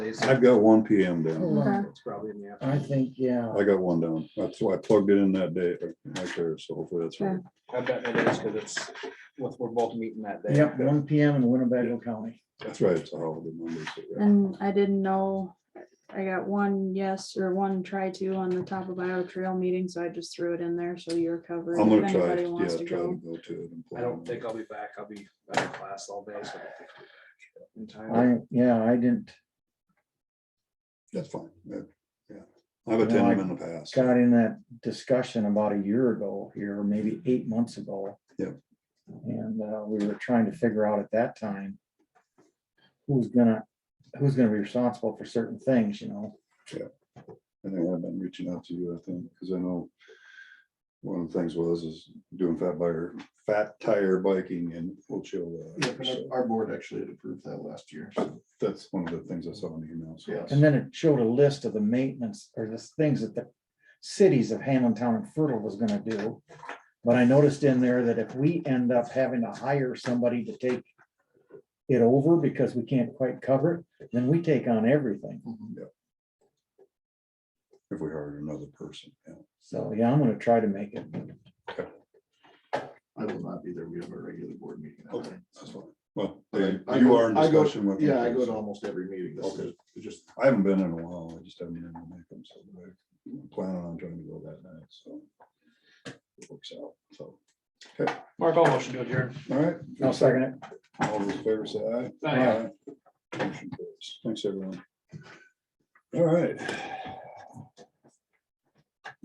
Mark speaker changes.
Speaker 1: Wednesdays.
Speaker 2: I've got one PM down.
Speaker 3: Hold on.
Speaker 4: Uh-huh.
Speaker 1: It's probably in the
Speaker 3: I
Speaker 1: afternoon.
Speaker 3: think, yeah,
Speaker 2: I got one down. That's why I plugged it in that day right there. So hopefully that's right.
Speaker 1: I bet it is because it's, with- we're both meeting that day.
Speaker 3: yep, one P M in Winnebago County.
Speaker 2: That's right. It's a holiday Monday. so yeah.
Speaker 4: And I didn't know, I got one yes or one try to on the top of Bio Trail meeting, so I just threw it in there, so you're covered.
Speaker 2: I'm
Speaker 4: if
Speaker 2: gonna try,
Speaker 4: anybody
Speaker 2: yeah,
Speaker 4: wants
Speaker 2: try
Speaker 4: to
Speaker 2: to
Speaker 4: go.
Speaker 2: go to it. and
Speaker 1: I
Speaker 2: plan on
Speaker 1: don't
Speaker 2: it.
Speaker 1: think I'll be back. I'll be out of class all day, so. I don't think I'll be back In time.
Speaker 3: I, yeah, I didn't,
Speaker 2: That's fine. Yeah, yeah. I've attended them in the past.
Speaker 3: got in that discussion about a year ago here, maybe eight months ago.
Speaker 2: Yep.
Speaker 3: And uh, we were trying to figure out at that time who's gonna, who's gonna be responsible for certain things, you know?
Speaker 2: And they have been reaching out to you, I think, because I know one of the things was is doing fat buyer, fat tire biking in Ocho.
Speaker 5: Yeah, but our- our board actually had approved that last year. so
Speaker 2: That's one of the things I saw in the email. So
Speaker 5: Yeah.
Speaker 3: And then it showed a list of the maintenance or the things that the cities of Hamlin Town and Fertile was gonna do. But I noticed in there that if we end up having to hire somebody to take it over because we can't quite cover it, then we take on everything.
Speaker 2: if we hired another person, yeah.
Speaker 3: So, yeah, I'm gonna try to make it.
Speaker 5: I will not be there. We have a regular board meeting. that
Speaker 2: Okay,
Speaker 5: day.
Speaker 2: that's fine. Well,
Speaker 5: But I-
Speaker 2: they-
Speaker 5: I
Speaker 2: you
Speaker 5: go-
Speaker 2: are in
Speaker 5: I go-
Speaker 2: discussion with. them,
Speaker 5: Yeah, I go to
Speaker 2: so-
Speaker 5: almost every meeting. This
Speaker 2: Okay.
Speaker 5: is it's just,
Speaker 2: I haven't been in a while. I just haven't been able to make them. So I'm planning on trying to go that night, so. it Works out, so.
Speaker 1: Mark, I'll motion to adjourn.
Speaker 2: All right.
Speaker 3: I'll second it.
Speaker 2: All those in favor say aye.
Speaker 1: Aye.
Speaker 2: Aye. Motion carries. Thanks, everyone. All right.